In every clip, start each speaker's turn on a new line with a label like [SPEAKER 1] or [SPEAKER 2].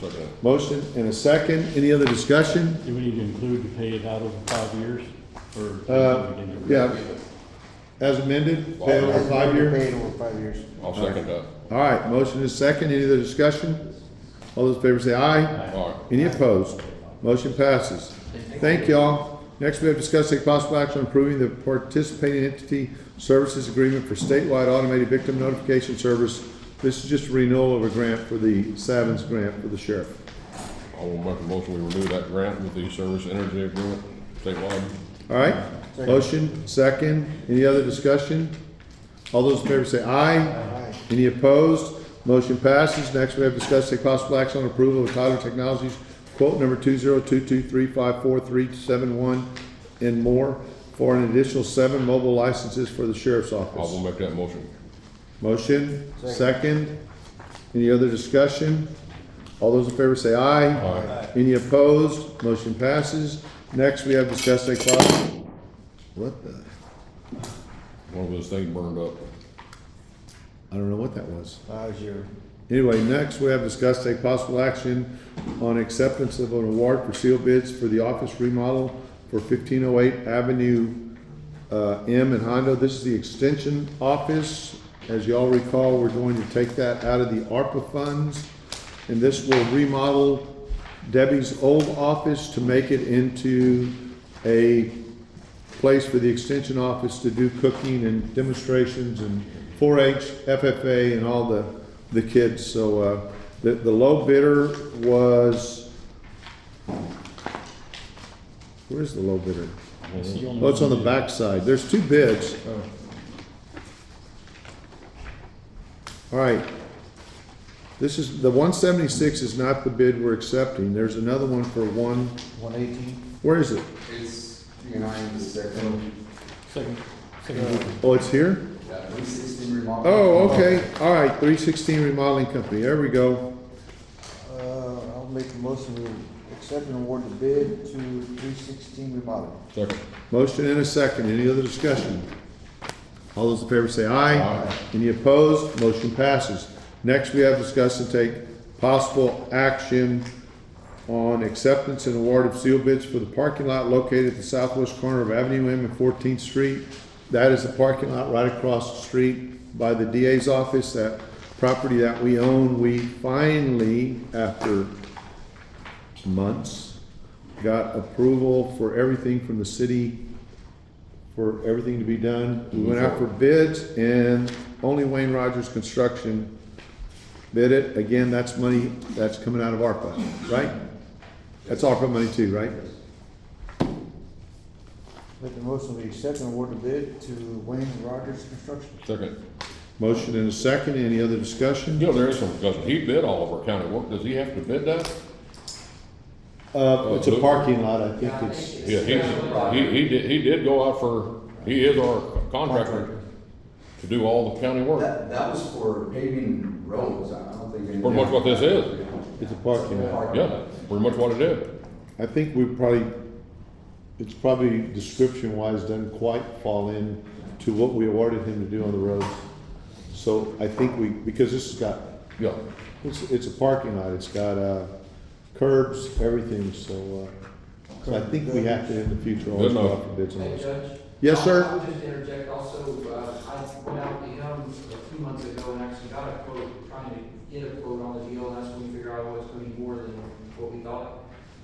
[SPEAKER 1] second.
[SPEAKER 2] Motion and a second. Any other discussion?
[SPEAKER 3] Do we need to include to pay it out over five years, or?
[SPEAKER 2] Uh, Yeah, as amended, pay over five year.
[SPEAKER 4] Paid over five years.
[SPEAKER 1] I'll second that.
[SPEAKER 2] All right, motion is second. Any other discussion? All those in favor say aye.
[SPEAKER 1] All right.
[SPEAKER 2] Any opposed? Motion passes. Thank y'all. Next, we have discussed take possible action on approving the participating entity services agreement for statewide automated victim notification service. This is just a renewal of a grant for the Savins grant for the sheriff.
[SPEAKER 1] I will make a motion, we renew that grant with the service energy agreement statewide.
[SPEAKER 2] All right, motion, second, any other discussion? All those in favor say aye. Any opposed? Motion passes. Next, we have discussed take possible action on approval of Tyler Technologies quote number two zero two two three five four three seven one and more for an additional seven mobile licenses for the sheriff's
[SPEAKER 1] I will
[SPEAKER 2] office.
[SPEAKER 1] make that motion.
[SPEAKER 2] Motion, second, any other discussion? All those in favor say aye.
[SPEAKER 1] Aye.
[SPEAKER 2] Any opposed? Motion passes. Next, we have discussed take possible, what the?
[SPEAKER 1] One of those things burned up.
[SPEAKER 2] I don't know what that was.
[SPEAKER 4] That was your,
[SPEAKER 2] Anyway, next we have discussed take possible action on acceptance of an award for sealed bids for the office remodel for fifteen oh eight Avenue, uh, M in Hondo. This is the extension office. As y'all recall, we're going to take that out of the ARPA funds. And this will remodel Debbie's old office to make it into a place for the extension office to do cooking and demonstrations and 4-H, FFA, and all the, the kids. So, uh, the, the low bidder was, where's the low bidder? Oh, it's on the backside. There's two bids. All right. This is, the one seventy-six is not the bid we're accepting. There's another one for one,
[SPEAKER 4] one eighteen,
[SPEAKER 2] where is it?
[SPEAKER 5] It's behind the second,
[SPEAKER 3] Second, second,
[SPEAKER 2] Oh, it's here?
[SPEAKER 5] uh, three sixteen remodel.
[SPEAKER 2] Oh, okay, all right, three sixteen remodeling company, there we go.
[SPEAKER 4] uh, I'll make a motion to accept and award the bid to three sixteen remodeling.
[SPEAKER 1] Second.
[SPEAKER 2] Motion and a second, any other discussion? All those in favor say aye.
[SPEAKER 1] Aye.
[SPEAKER 2] Any opposed, motion passes. Next, we have discuss and take possible action on acceptance and award of seal bids for the parking lot located at the southwest corner of Avenue M and Fourteenth Street. That is the parking lot right across the street by the DA's office, that property that we own. We finally, after months, got approval for everything from the city, for everything to be done. We went out for bids and only Wayne Rogers Construction bid it. Again, that's money that's coming out of ARPA, right? That's ARPA money too, right?
[SPEAKER 4] Make a motion to accept and award the bid to Wayne Rogers Construction.
[SPEAKER 1] Second.
[SPEAKER 2] Motion and a second, any other discussion?
[SPEAKER 1] You know, there is some discussion. He bid all of our county work. Does he have to bid that?
[SPEAKER 2] Uh, it's a parking lot, I think it's,
[SPEAKER 1] Yeah, he, he, he did, he did go out for, he is our contractor to do all the county work.
[SPEAKER 5] That, that was for paving roads, I don't think. any-
[SPEAKER 1] Pretty much what this is.
[SPEAKER 2] it's a parking lot.
[SPEAKER 5] Parking.
[SPEAKER 1] Yeah, pretty much what it is.
[SPEAKER 2] I think we probably, it's probably description wise doesn't quite fall in to what we awarded him to do on the roads. So I think we, because this has got,
[SPEAKER 1] Yeah.
[SPEAKER 2] it's, it's a parking lot, it's got, uh, curbs, everything, so, uh, so I think we have to in the future always go out for bids on
[SPEAKER 6] Hey,
[SPEAKER 2] this.
[SPEAKER 6] Judge?
[SPEAKER 2] Yes, sir.
[SPEAKER 6] I would just interject also, uh, I went out to him a few months ago and actually got a quote, trying to get a quote on the deal, and that's when we figured out it was gonna be more than what we thought.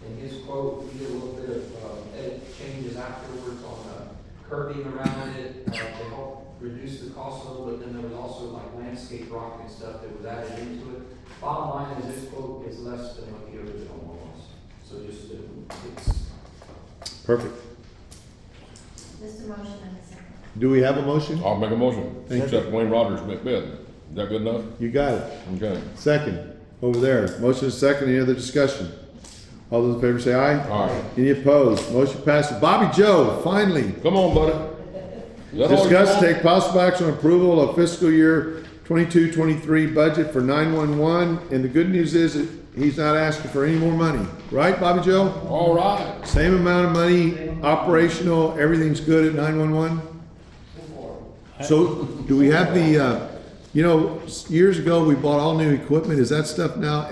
[SPEAKER 6] And his quote, we did a little bit of, uh, edit changes afterwards on, uh, curbing around it, uh, to help reduce the cost a little, but then there was also like landscape rock and stuff that was added into it. Bottom line is this quote is less than what the original one was, so just, uh, it's,
[SPEAKER 2] Perfect.
[SPEAKER 7] Just a motion and a second.
[SPEAKER 2] Do we have a motion?
[SPEAKER 1] I'll make a motion.
[SPEAKER 2] Thank you.
[SPEAKER 1] Except Wayne Rogers bid. Is that good enough?
[SPEAKER 2] You got it.
[SPEAKER 1] Okay.
[SPEAKER 2] Second, over there. Motion is second, any other discussion? All those in favor say aye.
[SPEAKER 1] All right.
[SPEAKER 2] Any opposed? Motion passes. Bobby Joe, finally.
[SPEAKER 1] Come on, buddy. Is that all you
[SPEAKER 2] Discuss,
[SPEAKER 1] want?
[SPEAKER 2] take possible action on approval of fiscal year 22-23 budget for nine-one-one, and the good news is that he's not asking for any more money, right, Bobby Joe?
[SPEAKER 1] All right.
[SPEAKER 2] Same amount of money, operational, everything's good at nine-one-one? So, do we have the, uh, you know, s- years ago, we bought all new equipment, is that stuff now